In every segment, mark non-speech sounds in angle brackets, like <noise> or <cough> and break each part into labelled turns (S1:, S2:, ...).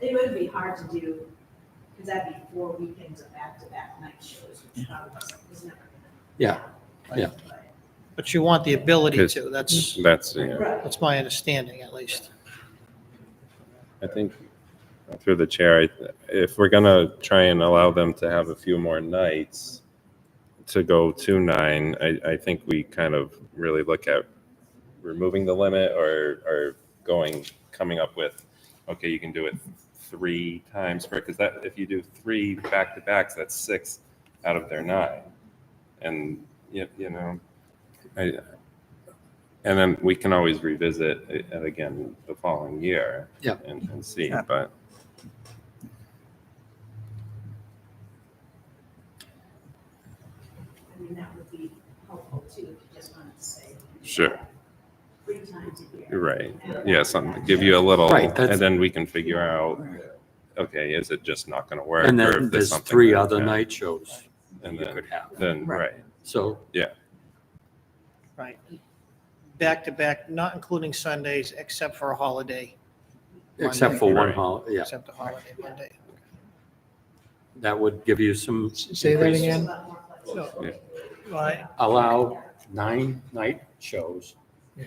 S1: It would be hard to do, because that'd be four weekends of back-to-back night shows, which
S2: Mm-hmm.
S1: probably was- was never gonna.
S3: Yeah, yeah.
S1: But-
S4: But you want the ability
S2: Yes.
S4: to, that's,
S2: That's, yeah,
S1: Right.
S4: that's my understanding at least.
S2: I think through the chair, I- if we're gonna try and allow them to have a few more nights to go to nine, I, I think we kind of really look at removing the limit or, or going, coming up with, okay, you can do it three times per, because that, if you do three back-to-backs, that's six out of their nine. And, you, you know, I, and then we can always revisit it and again the following year.
S3: Yeah.
S2: And, and see,
S5: Yeah.
S2: but
S1: I mean, that would be helpful too, if you just wanted to say.
S2: Sure.
S1: Three times a
S2: you're
S1: year.
S2: right. Yeah, something, give you a little,
S3: Right, that's-
S2: and then we can figure out, okay, is it just not gonna work?
S3: And
S2: or if
S3: then there's
S2: something
S3: three
S2: that-
S3: other
S2: yeah,
S3: night shows
S2: And
S3: you
S2: then,
S3: could have.
S2: then, right,
S3: So,
S4: Right. Back to back, not including Sundays except for a holiday,
S3: except for one
S2: Right.
S3: hol, yeah,
S4: except a holiday Monday.
S3: that would give you some,
S6: Say that
S1: It's just
S6: again?
S1: a lot more flexible.
S2: Yeah.
S4: Right,
S3: allow nine night shows.
S6: Yeah.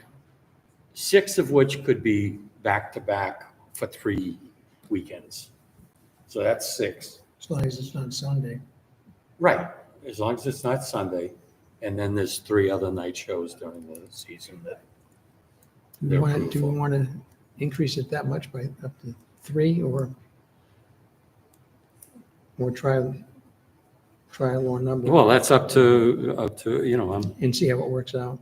S3: Six of which could be back-to-back for three weekends. So that's six.
S6: As long as it's not Sunday.
S3: Right, as long as it's not Sunday. And then there's three other night shows during the season that
S6: Do we
S3: They're
S6: want to, do we
S3: fruitful.
S6: want to increase it that much by up to three or? Or try, try a lower number
S3: Well, that's up to, up to, you know, I'm,
S6: and see how it works out?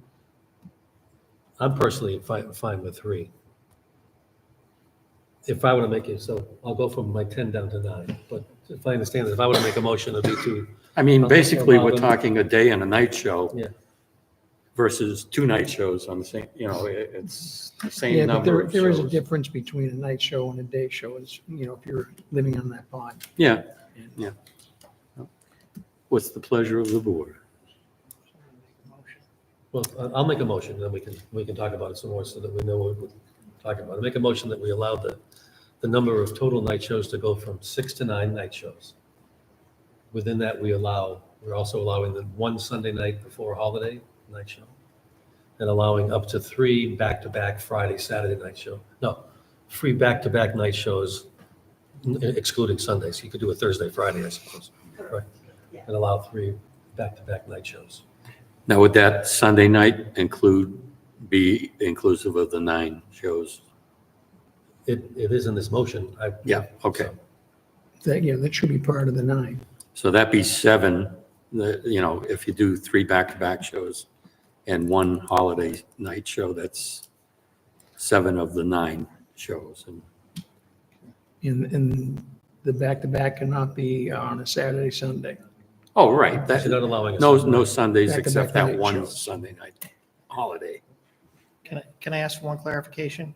S7: I'm personally fine, fine with three. If I were to make it, so I'll go from my ten down to nine, but if I understand it, if I were to make a motion, it'd be two.
S3: I mean,
S7: I'll just
S3: basically,
S7: allow
S3: we're
S7: them-
S3: talking a day and a night show.
S7: Yeah.
S3: Versus two night shows on the same, you know, it, it's the
S6: Yeah,
S3: same
S6: but
S3: number
S6: there,
S3: of
S6: there is a
S3: shows.
S6: difference between a night show and a day show is, you know, if you're living on that pond.
S3: Yeah, yeah. What's the pleasure of the board?
S7: Well, I- I'll make a motion, then we can, we can talk about it some more so that we know what we're talking about. I make a motion that we allow the, the number of total night shows to go from six to nine night shows. Within that, we allow, we're also allowing the one Sunday night before holiday night show. And allowing up to three back-to-back Friday, Saturday night show. No, three back-to-back night shows excluding Sundays. You could do a Thursday, Friday, I suppose. Right.
S1: Yeah.
S7: And allow three back-to-back night shows.
S3: Now, would that Sunday night include, be inclusive of the nine shows?
S7: It, it is in this motion. I,
S3: Yeah, okay.
S6: That, yeah, that should be part of the nine.
S3: So that'd be seven, the, you know, if you do three back-to-back shows and one holiday night show, that's seven of the nine shows. And
S6: And, and the back-to-back cannot be on a Saturday, Sunday.
S3: Oh, right,
S7: That's not
S3: that,
S7: allowing us.
S3: no, no Sundays
S6: Back-to-back
S3: except that
S6: night
S3: one
S6: shows.
S3: Sunday night holiday.
S4: Can I, can I ask for one clarification?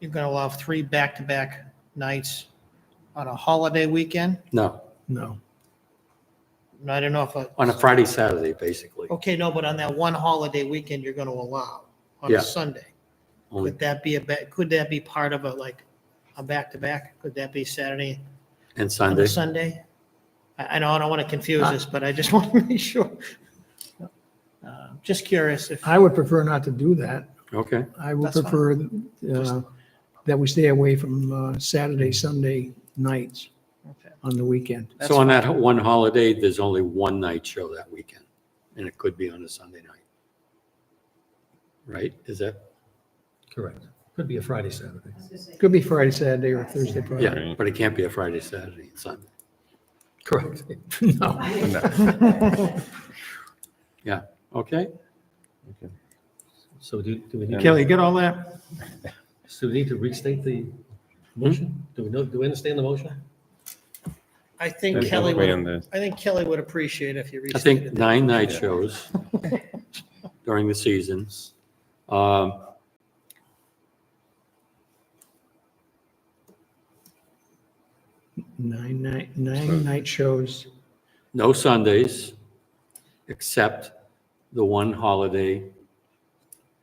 S4: You're going to allow three back-to-back nights on a holiday weekend?
S3: No,
S6: No.
S4: And I don't know if,
S3: on
S4: a-
S3: a Friday, Saturday, basically.
S4: okay, no, but on that one holiday weekend, you're going to allow on
S3: Yeah.
S4: a Sunday.
S3: Only-
S4: Would that be a, ba- could that be part of a, like, a back-to-back? Could that be Saturday
S3: And
S4: on a
S3: Sunday,
S4: Sunday? I, I know, I don't want to confuse this, but I just <laughs> want to make sure. Uh, Just curious if,
S6: I would prefer not to do that.
S3: okay,
S6: I would
S4: That's fine.
S6: prefer uh, that we stay away from uh, Saturday, Sunday nights
S4: Okay.
S6: on the weekend.
S4: That's
S3: so on that one holiday, there's only one night show that weekend, and it could be on a Sunday night. Right, is that,
S7: Correct. Could be a Friday, Saturday.
S1: I was gonna say,
S6: Could be Friday, Saturday, or Thursday, Friday.
S3: yeah, but it can't be a Friday, Saturday, and Sunday.
S7: Correct. <laughs>
S6: No.
S3: Okay,
S7: So do, do we need,
S6: Kelly, you get all that?
S7: so we need to restate the
S3: Hmm?
S7: motion? Do we know, do we understand the motion?
S4: I think
S2: There's no
S4: Kelly
S2: way
S4: would,
S2: in this.
S4: I think Kelly would appreciate if you
S3: I think
S4: restated that.
S3: nine night
S4: <laughs>
S3: shows during the seasons. Um,
S6: Nine night, nine night shows.
S3: No Sundays, except the one holiday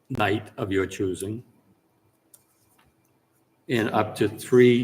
S3: night of your choosing. and up to three